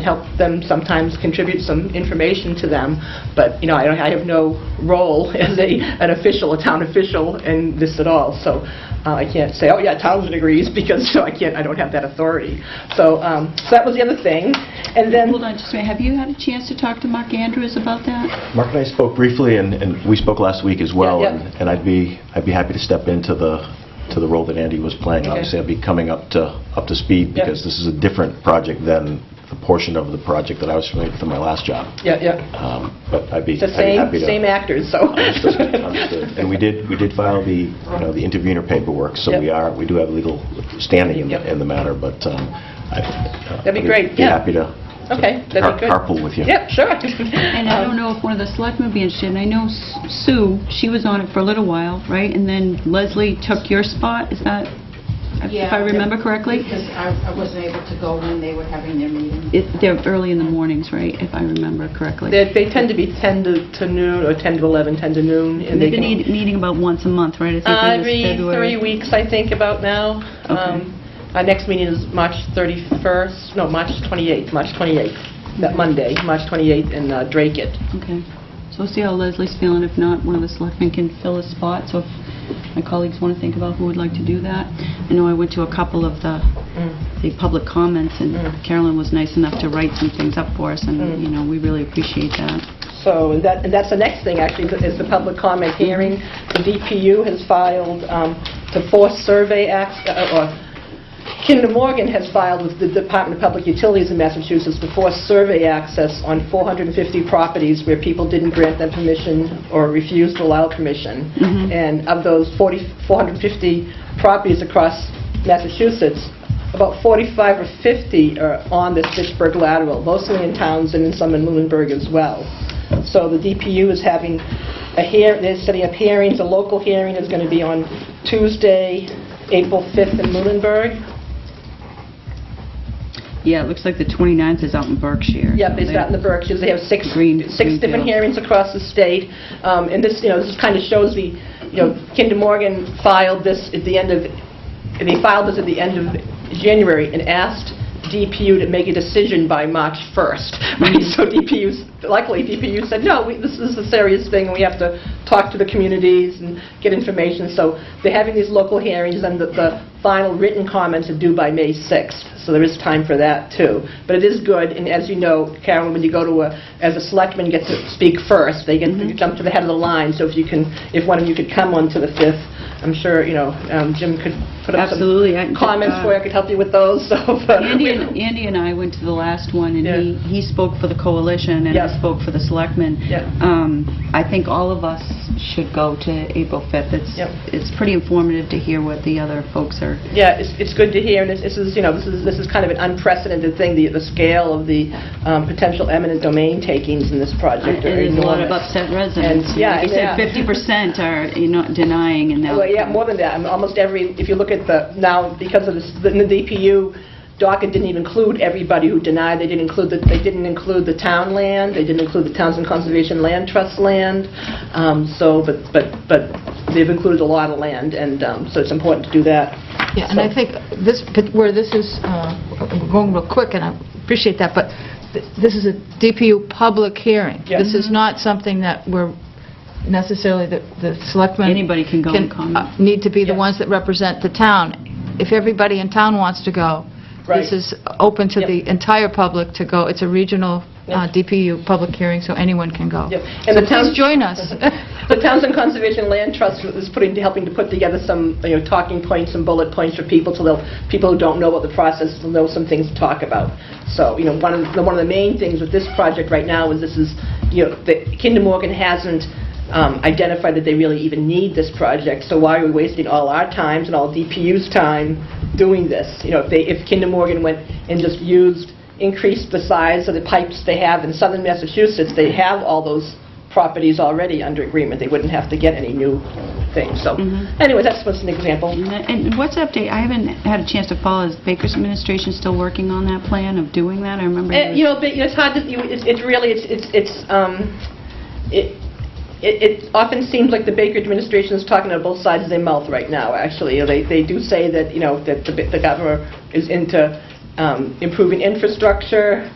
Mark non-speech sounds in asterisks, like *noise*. help them sometimes contribute some information to them, but, you know, I don't, I have no role *laughs* as a, an official, a town official in this at all, so uh, I can't say, oh, yeah, Townsend agrees, *laughs* because, so I can't, I don't have that authority. So, um, so that was the other thing, and then... Hold on just a minute, have you had a chance to talk to Mark Andrews about that? Mark and I spoke briefly, and, and we spoke last week as well, Yeah, yeah. and and I'd be, I'd be happy to step into the, to the role that Andy was playing. Okay. Obviously, I'd be coming up to, up to speed, Yeah. because this is a different project than the portion of the project that I was familiar with in my last job. Yeah, yeah, Um, But I'd be the I'd same, be happy to... *laughs* same *laughs* actors, so... *laughs* Understood, understood. And we did, we did file the, you know, the intervener paperwork, so we Yep. are, we do have legal standing in Yep. the, in the matter, but um, I... uh, That'd be I'd great, Be yeah. happy to Okay, that'd car- be good. carpool with you. Yeah, sure. Um, *laughs* And I don't Uh, know if one of the selectmen would be interested, and I know Sue, she was on it for a little while, right? And then Leslie took your spot, is that, if Yeah. I remember correctly? Because I I wasn't able to go when they were having their meeting. It- They're early in the mornings, right, if I remember correctly? They they tend to be 10 to to noon, or 10 to 11, 10 to noon. and They've can- been eat- meeting about once a month, right? I think it was Every February. three weeks, I think, about now. Okay. Um, Our next meeting is March 31st, no, March 28th, March 28th, that Monday, March 28th in uh, Drake it. Okay. So we'll see how Leslie's feeling. If not, one of the selectmen can fill a spot. So if my colleagues want to think about who would like to do that. I know I went to a couple of the, the public comments, and Mm. Carolyn was nice enough to write some things up for us, Mm. and, you know, we really appreciate that. So and that, and that's the next thing, actually, is the public comment hearing. The DPU has filed um, to force survey, ac- uh, or Kinder Morgan has filed with the Department of Public Utilities in Massachusetts to force survey access on 450 properties where people didn't grant them permission or refused to allow permission. Mhm. And of those 40 450 properties across Massachusetts, about 45 or 50 are on the Fitchburg lateral, mostly in Townsend and some in Lunenburg as well. So the DPU is having a hear, they're setting up hearings, a local hearing is going to be on Tuesday, April 5th in Lunenburg. Yeah, it looks like the 29th is out in Berkshire. Yep, it's out in the Berkshires, they have six, Green- six different Greenfield. hearings across the state, Um, and this, you know, this kind of shows the, you know, Kinder Morgan filed this at the end of, they filed this at the end of January and asked DPU to make a decision by March 1st, *laughs* right? So DPU, 's- luckily DPU said, no, we- this is a serious thing, and we have to talk to the communities and get information, so they're having these local hearings, and the- the final written comments are due by May 6th, so there is time for that, too. But it is good, and as you know, Carolyn, when you go to a, as a selectman gets to speak first, they get, you jump to the head of the line, so if you can, if one of you could come on to the 5th, I'm sure, you know, um, Jim could put up some Absolutely. I- comments uh, for you, I could help you with those, *laughs* so. but- Andy and, Andy and I went to the last one, and he, Yeah. he spoke for the coalition, and Yeah. I spoke for the selectmen. Yeah. Um, I think all of us should go to April 5th. It's, Yep. it's pretty informative to hear what the other folks are. *laughs* Yeah, it's, it's good to hear, and this this is, you know, this is, this is kind of an unprecedented thing, the, the scale of the um, potential eminent domain takings in this project are There's enormous. a lot of upset residents. And- yeah, Like you yeah. said, 50% are, you know, denying, and now... Well, yeah, more than that. I mean, Almost every, if you look at the, now, because of this, the the DPU docket didn't even include everybody who denied. They didn't include, the they didn't include the town land, they didn't include the Townsend Conservation Land Trust land. Um, So, but, but, but they've included a lot of land, and um, so it's important to do that. Yeah, and I think this, where this is, uh, we're going real quick, and I appreciate that, but th- this is a DPU public hearing. Yeah. Mm-hmm. This is not something that we're necessarily, the the selectmen... Anybody can go and uh, comment. Need to be the Yeah. ones that represent the town. If everybody in town wants to go, Right. this is open to Yep. the entire public to go. It's a regional uh, Yep. DPU public hearing, so anyone can go. Yep. And the town- So please join us. *laughs* The Townsend Conservation Land Trust is putting, helping to put together some, you know, talking points and bullet points for people, so they'll, people who don't know about the process will know some things to talk about. So, you know, one of, the one of the main things with this project right now is this is, you know, that Kinder Morgan hasn't um, identified that they really even need this project, so why are we wasting all our times and all DPU's time doing this? You know, if they, if Kinder Morgan went and just used, increased the size of the pipes they have in southern Massachusetts, they have all those properties already under agreement, they wouldn't have to get any new things. So, anyway, that's just an example. And that- And what's the update? I haven't had a chance to follow. Is Baker's administration still working on that plan of doing that? I remember... Eh, You know, but you know, it's hard to, you- it's it's really, it's, it's, it's, um, it it it often seems like the Baker administration is talking out of both sides of their mouth right now, actually. You know, They they do say that, you know, that the the governor is into um, improving infrastructure,